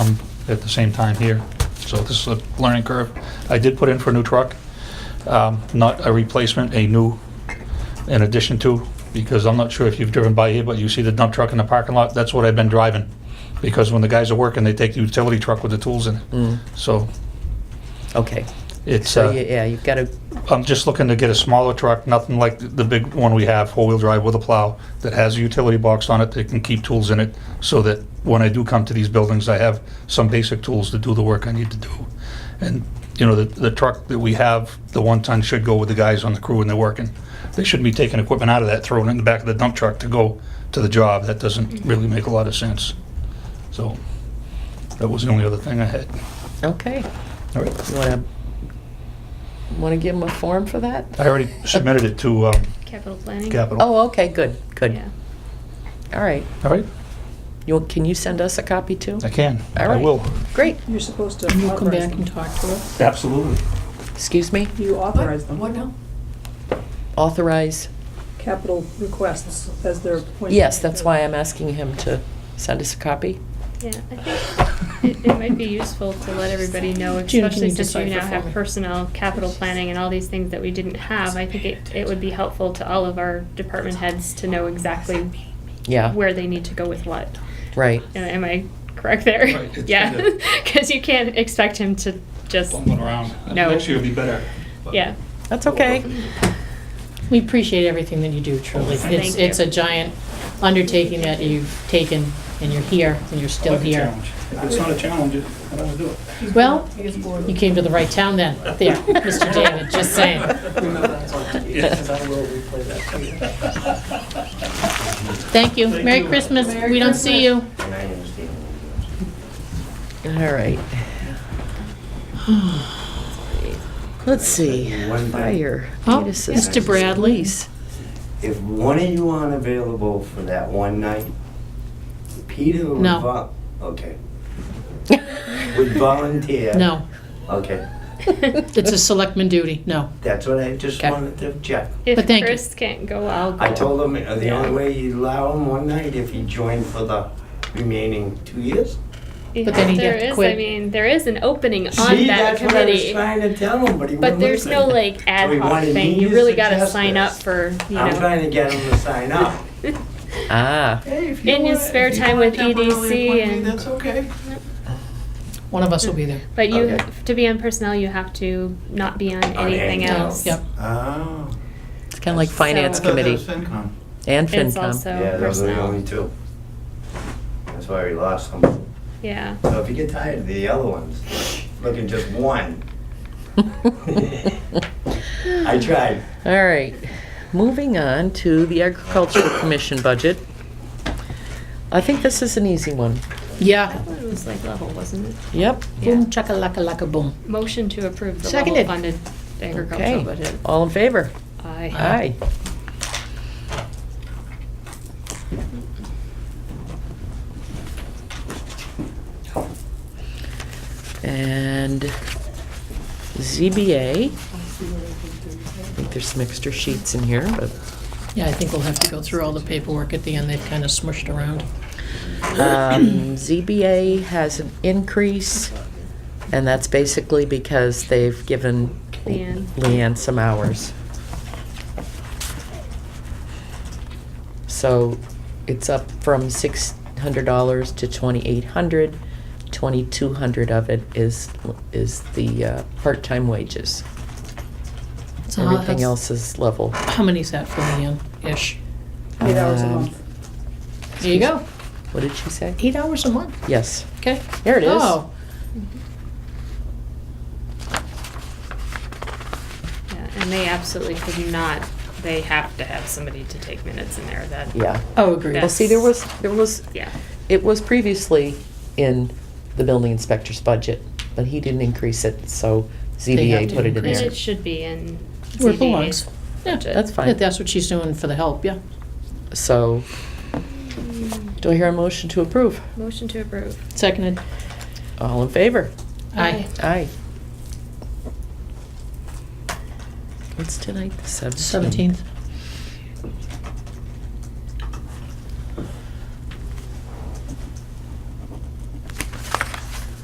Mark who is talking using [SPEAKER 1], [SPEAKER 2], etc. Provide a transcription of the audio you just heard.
[SPEAKER 1] um, at the same time here. So this is a learning curve. I did put in for a new truck, um, not a replacement, a new in addition to, because I'm not sure if you've driven by here, but you see the dump truck in the parking lot, that's what I've been driving. Because when the guys are working, they take the utility truck with the tools in it.
[SPEAKER 2] Mm,
[SPEAKER 1] So
[SPEAKER 2] Okay.
[SPEAKER 1] it's,
[SPEAKER 2] So,
[SPEAKER 1] uh,
[SPEAKER 2] you- yeah, you've got to,
[SPEAKER 1] I'm just looking to get a smaller truck, nothing like th- the big one we have, four-wheel drive with a plow, that has a utility box on it that can keep tools in it, so that when I do come to these buildings, I have some basic tools to do the work I need to do. And, you know, the, the truck that we have, the one-ton should go with the guys on the crew when they're working. They shouldn't be taking equipment out of that, throwing it in the back of the dump truck to go to the job. That doesn't really make a lot of sense. So, that was the only other thing I had.
[SPEAKER 2] okay.
[SPEAKER 1] All right.
[SPEAKER 2] You want to, want to give them a form for that?
[SPEAKER 1] I already submitted it to, um,
[SPEAKER 3] Capital planning?
[SPEAKER 1] Capital.
[SPEAKER 2] Oh, okay, good, good.
[SPEAKER 3] Yeah.
[SPEAKER 2] All right.
[SPEAKER 1] All right,
[SPEAKER 2] You, want- can you send us a copy too?
[SPEAKER 1] I can.
[SPEAKER 2] All
[SPEAKER 1] I
[SPEAKER 2] right.
[SPEAKER 1] will.
[SPEAKER 2] Great.
[SPEAKER 4] You're supposed to
[SPEAKER 5] And you'll come
[SPEAKER 4] authorize
[SPEAKER 5] back
[SPEAKER 4] them.
[SPEAKER 5] and talk to us?
[SPEAKER 1] Absolutely.
[SPEAKER 2] Excuse me?
[SPEAKER 4] You authorize them.
[SPEAKER 5] What now?
[SPEAKER 2] Authorize?
[SPEAKER 4] Capital requests as their appointment.
[SPEAKER 2] Yes, that's why I'm asking him to send us a copy.
[SPEAKER 3] Yeah, I think it, it might be useful to let everybody know,
[SPEAKER 5] June, can
[SPEAKER 3] especially
[SPEAKER 5] you
[SPEAKER 3] since we
[SPEAKER 5] decipher
[SPEAKER 3] now
[SPEAKER 5] for
[SPEAKER 3] have
[SPEAKER 5] me?
[SPEAKER 3] personnel, capital planning, and all these things that we didn't have. I think it, it would be helpful to all of our department heads to know exactly
[SPEAKER 2] Yeah,
[SPEAKER 3] where they need to go with what.
[SPEAKER 2] right.
[SPEAKER 3] Uh, Am I correct there?
[SPEAKER 1] Right, it's
[SPEAKER 3] Yeah,
[SPEAKER 1] kinda-
[SPEAKER 3] because you can't expect him to just,
[SPEAKER 1] bumbling around.
[SPEAKER 3] No.
[SPEAKER 1] Next year will be better. but-
[SPEAKER 3] yeah.
[SPEAKER 2] That's okay.
[SPEAKER 5] We appreciate everything that you do, truly.
[SPEAKER 3] Thank
[SPEAKER 5] It's,
[SPEAKER 3] you.
[SPEAKER 5] it's a giant undertaking that you've taken, and you're here, and you're
[SPEAKER 1] I
[SPEAKER 5] still
[SPEAKER 1] like a
[SPEAKER 5] here.
[SPEAKER 1] challenge. If it's not a challenge, I don't want to do it.
[SPEAKER 5] Well, you came to the right town then, there, Mr. David, just saying. Thank you. Merry Christmas. We don't see you.
[SPEAKER 2] All right. Let's see, fire.
[SPEAKER 5] Oh,
[SPEAKER 2] need assistance,
[SPEAKER 5] Mr. Bradley.
[SPEAKER 2] police.
[SPEAKER 6] If one of you aren't available for that one night, Peter would
[SPEAKER 5] No.
[SPEAKER 6] vol- okay. Would volunteer.
[SPEAKER 5] No,
[SPEAKER 6] Okay,
[SPEAKER 5] it's a selectman duty, no.
[SPEAKER 6] that's what I just
[SPEAKER 2] Okay.
[SPEAKER 6] wanted to check.
[SPEAKER 3] If
[SPEAKER 5] But thank you.
[SPEAKER 3] Chris can't go, I'll go.
[SPEAKER 6] I told him uh, the
[SPEAKER 3] Yeah.
[SPEAKER 6] only way you allow him one night if he joined for the remaining two years.
[SPEAKER 5] But then he'd
[SPEAKER 3] There
[SPEAKER 5] have to
[SPEAKER 3] is, I
[SPEAKER 5] quit.
[SPEAKER 3] mean, there is an opening on
[SPEAKER 6] See,
[SPEAKER 3] that
[SPEAKER 6] that's what I was
[SPEAKER 3] committee.
[SPEAKER 6] trying to tell him, but he
[SPEAKER 3] But
[SPEAKER 6] wouldn't
[SPEAKER 3] there's no
[SPEAKER 6] listen.
[SPEAKER 3] like ad
[SPEAKER 6] So he
[SPEAKER 3] hoc
[SPEAKER 6] wanted
[SPEAKER 3] thing.
[SPEAKER 6] me
[SPEAKER 3] You
[SPEAKER 6] to
[SPEAKER 3] really gotta
[SPEAKER 6] suggest
[SPEAKER 3] sign up
[SPEAKER 6] this.
[SPEAKER 3] for, you
[SPEAKER 6] I'm trying
[SPEAKER 3] know.
[SPEAKER 6] to get him to sign up.
[SPEAKER 2] Ah,
[SPEAKER 6] Hey, if you
[SPEAKER 3] In his
[SPEAKER 6] want-
[SPEAKER 3] spare
[SPEAKER 6] if you
[SPEAKER 3] time
[SPEAKER 6] wanna
[SPEAKER 3] with
[SPEAKER 6] temporarily
[SPEAKER 3] EDC
[SPEAKER 6] appoint me,
[SPEAKER 3] and-
[SPEAKER 6] That's okay.
[SPEAKER 5] One of us will be there.
[SPEAKER 3] But you,
[SPEAKER 6] Okay.
[SPEAKER 3] to be on personnel, you have to not be on
[SPEAKER 6] On
[SPEAKER 3] anything
[SPEAKER 6] anything
[SPEAKER 3] else.
[SPEAKER 5] Yep.
[SPEAKER 6] Oh.
[SPEAKER 2] it's kind of like
[SPEAKER 3] So-
[SPEAKER 2] finance
[SPEAKER 3] I thought
[SPEAKER 2] committee and
[SPEAKER 3] It's
[SPEAKER 2] FinCom.
[SPEAKER 3] also
[SPEAKER 6] Yeah, those are the only
[SPEAKER 3] personnel.
[SPEAKER 6] two. That's why we lost them.
[SPEAKER 3] Yeah.
[SPEAKER 6] So if you get tired of the yellow ones, look at just one. I tried.
[SPEAKER 2] All right, moving on to the agricultural commission budget. I think this is an easy one.
[SPEAKER 5] Yeah,
[SPEAKER 3] It was like level, wasn't it?
[SPEAKER 2] Yep.
[SPEAKER 5] boom, chaka laka laka boom.
[SPEAKER 3] Motion to approve the level
[SPEAKER 2] Seconded.
[SPEAKER 3] funded agricultural
[SPEAKER 2] Okay,
[SPEAKER 3] budget.
[SPEAKER 2] all in favor?
[SPEAKER 3] Aye.
[SPEAKER 2] Aye. And ZBA. I think there's some extra sheets in here, but,
[SPEAKER 5] Yeah, I think we'll have to go through all the paperwork at the end. They've kind of smushed around.
[SPEAKER 2] um, ZBA has an increase, and that's basically because they've given
[SPEAKER 3] Leanne.
[SPEAKER 2] Leanne some hours. So it's up from six hundred dollars to twenty-eight hundred. Twenty-two hundred of it is, is the uh, part-time wages.
[SPEAKER 5] So how-
[SPEAKER 2] Everything else is level.
[SPEAKER 5] How many's that for Leanne, ish?
[SPEAKER 4] Eight hours a
[SPEAKER 2] Um,
[SPEAKER 4] month.
[SPEAKER 5] There you go.
[SPEAKER 2] What did she say?
[SPEAKER 5] Eight hours a month,
[SPEAKER 2] Yes,
[SPEAKER 5] okay?
[SPEAKER 2] there it is.
[SPEAKER 5] Oh,
[SPEAKER 3] Yeah, And they absolutely could not, they have to have somebody to take minutes in there that,
[SPEAKER 2] Yeah.
[SPEAKER 5] oh, agreed.
[SPEAKER 2] Well, see, there was, there was,
[SPEAKER 3] yeah.
[SPEAKER 2] it was previously in the building inspector's budget, but he didn't increase it, so
[SPEAKER 5] have
[SPEAKER 2] ZBA
[SPEAKER 5] to
[SPEAKER 2] put it in
[SPEAKER 3] And
[SPEAKER 5] increase
[SPEAKER 2] there.
[SPEAKER 3] it should be in
[SPEAKER 5] Where it belongs.
[SPEAKER 3] ZBA's
[SPEAKER 5] Yeah,
[SPEAKER 3] budget.
[SPEAKER 2] That's
[SPEAKER 5] Yeah,
[SPEAKER 2] fine.
[SPEAKER 5] that's what she's doing for the help, yeah.
[SPEAKER 2] So, do I hear a motion to approve?
[SPEAKER 3] Hmm. Motion to approve.
[SPEAKER 5] Seconded.
[SPEAKER 2] All in favor?
[SPEAKER 5] Aye.
[SPEAKER 2] Aye. What's tonight, the 17th?
[SPEAKER 5] Seventeenth.